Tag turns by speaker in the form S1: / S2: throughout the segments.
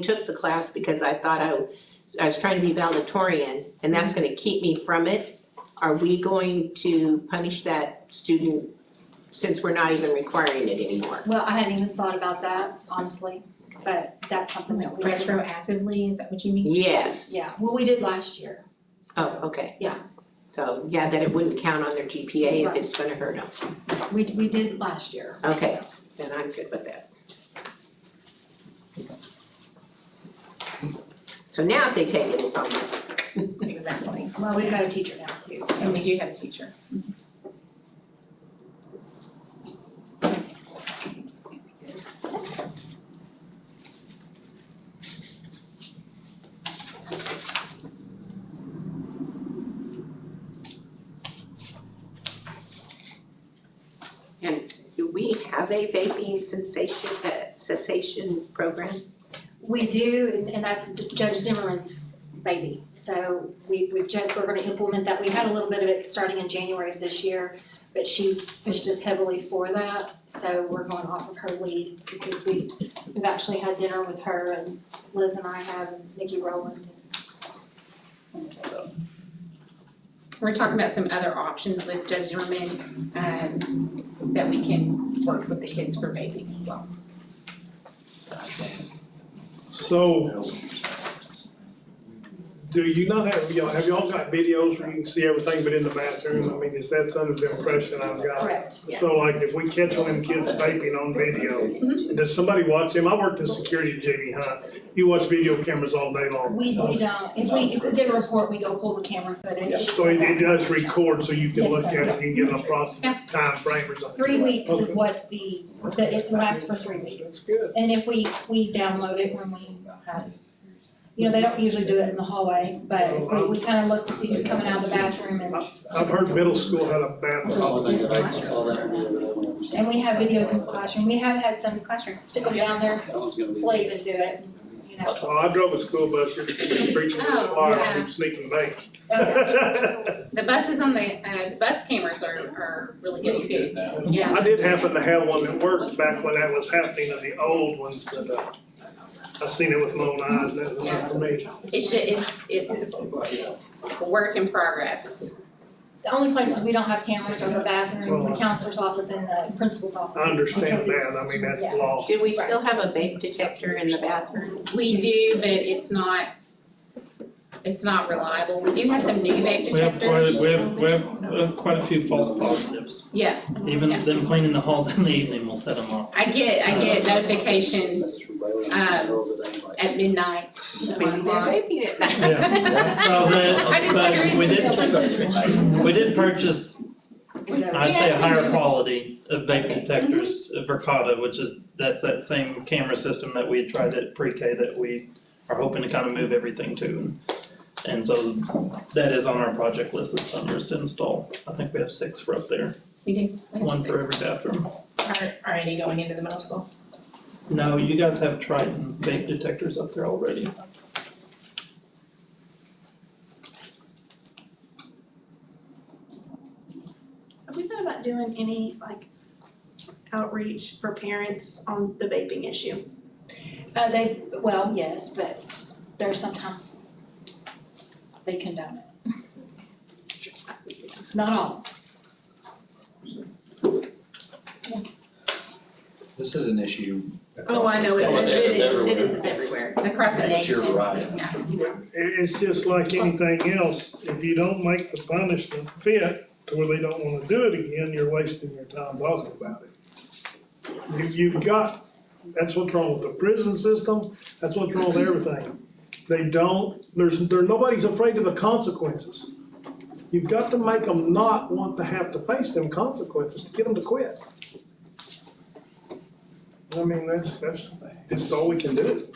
S1: took the class because I thought I, I was trying to be valedictorian, and that's gonna keep me from it. Are we going to punish that student since we're not even requiring it anymore?
S2: Well, I hadn't even thought about that, honestly, but that's something that we did,
S3: Retroactively, is that what you mean?
S1: Yes.
S2: yeah, well, we did last year.
S1: Oh,
S2: So
S1: okay.
S2: Yeah.
S1: So, yeah, that it wouldn't count on their GPA if
S2: Right.
S1: it's gonna hurt them.
S2: we we did last
S3: Oh,
S2: year.
S1: Okay, then I'm good with that. So now if they take it, it's on them.
S3: Exactly.
S2: Well, we've got a teacher now too, so. Mhm.
S3: And we do have a teacher.
S1: Do we have a vaping sensation, uh, cessation program?
S2: We do, and that's Judge Zimmerman's baby. So we, we, ju- we're gonna implement that. We had a little bit of it starting in January of this year, but she's pushed us heavily for that. So we're going off of her lead because we, we've actually had dinner with her and Liz and I have, and Nikki Rowland.
S3: We're talking about some other options with Judge Zimmerman, um, that we can work with the kids for vaping as well.
S4: So, do you not have, y'all, have y'all got videos where you can see everything but in the bathroom? I mean, is that's under the impression I've got?
S2: Correct.
S4: So like, if we catch one of them kids vaping on video, does somebody watch him? I worked in security at J B Hunt. You watch video cameras all day long.
S2: We, we don't, if we, if we get a report, we go pull the camera footage.
S4: So it, it does record, so you can
S2: Yes,
S4: look
S2: sir.
S4: at it, you can get a approximate time frame or something.
S2: Three weeks is
S4: Okay.
S2: what the, that it lasts for three weeks.
S4: That's good.
S2: And if we, we download it when we have, you know, they don't usually do it in the hallway, but we, we kind of look to see who's coming out of the bathroom and,
S4: I've heard middle school had a bad
S5: I
S2: Oh,
S5: saw the thing that I, I saw that video that I went over.
S2: and we have videos in the classroom. We have had some classrooms stick them down their
S5: That one's gonna be.
S2: sleeve and do it, you know.
S4: Well, Oh, I drove a school bus here, preaching to the
S3: Oh,
S4: choir,
S3: yeah.
S4: and sneaking
S2: Okay.
S4: back.
S3: The buses on the, uh, the bus cameras are, are really good
S5: Really
S3: too.
S5: good now.
S3: Yeah.
S4: I did happen to have one that worked back when that was happening, of the old ones, but, uh, I seen it with my own eyes, that's enough for me.
S3: It's, ju- it's, it's work in progress.
S2: The only places we don't have cameras are the bathrooms, the counselor's office and the principal's office.
S4: I understand
S2: because it's-
S4: that, I mean, that's
S2: yeah.
S4: law.
S1: Do we still have a vape detector in the bathroom?
S3: We do, but it's not, it's not reliable. We do have some new vape
S6: We have quite,
S3: detectors.
S6: a- we have, we have uh, quite a few false positives.
S3: Yeah,
S6: Even
S3: Yeah.
S6: them cleaning the halls in the evening will set them off.
S3: I get, I get notifications
S5: That's from Bailey.
S3: um, at midnight.
S1: Maybe they're vaping it now.
S3: Yeah.
S6: So
S3: I just
S6: the, but
S3: wonder-
S6: we did, we did purchase,
S2: Whatever.
S6: I'd say a higher
S3: Yeah.
S6: quality of vaping detectors,
S3: Mm-hmm.
S6: uh, Verkada, which is, that's that same camera system that we had tried at pre-K that we are hoping to kind of move everything to. And- And so that is on our project list this summer is to install. I think we have six for up there,
S3: We do.
S6: one for every bathroom.
S7: Are, are any going into the middle school?
S6: No, you guys have Triton vape detectors up there already.
S7: Have we thought about doing any like outreach for parents on the vaping issue?
S2: Uh, they, well, yes, but they're sometimes, they condone it. Not all.
S8: This is an issue
S7: Oh,
S8: across
S7: I
S8: the
S7: know, it
S8: state.
S7: it is, it is, it's everywhere.
S3: Across the
S8: But
S3: nation.
S8: you're right.
S3: Yeah.
S4: It, it's just like anything else, if you don't make the punishment fit to where they don't wanna do it again, you're wasting your time talking about it. You, you've got, that's what's wrong with the prison system, that's what's wrong with everything. They don't, there's, there, nobody's afraid of the consequences. You've got to make them not want to have to face them consequences to get them to quit. I mean, that's, that's, that's all we can do.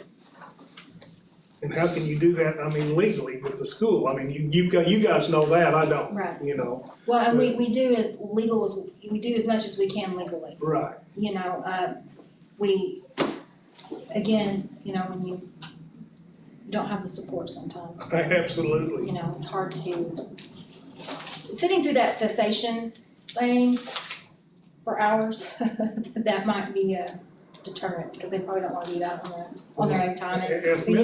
S4: And how can you do that, I mean legally with the school, I mean, you, you got, you guys know that, I don't,
S2: Right.
S4: you know,
S2: Well, and we, we do as legal as, we do as much as we can legally,
S4: right.
S2: you know, uh, we, again, you know, when you don't have the support sometimes.
S4: Absolutely.
S2: you know, it's hard to, sitting through that cessation thing for hours, that might be a, deterrent, because they probably don't wanna do that on their, on their own time, and
S4: If
S2: we-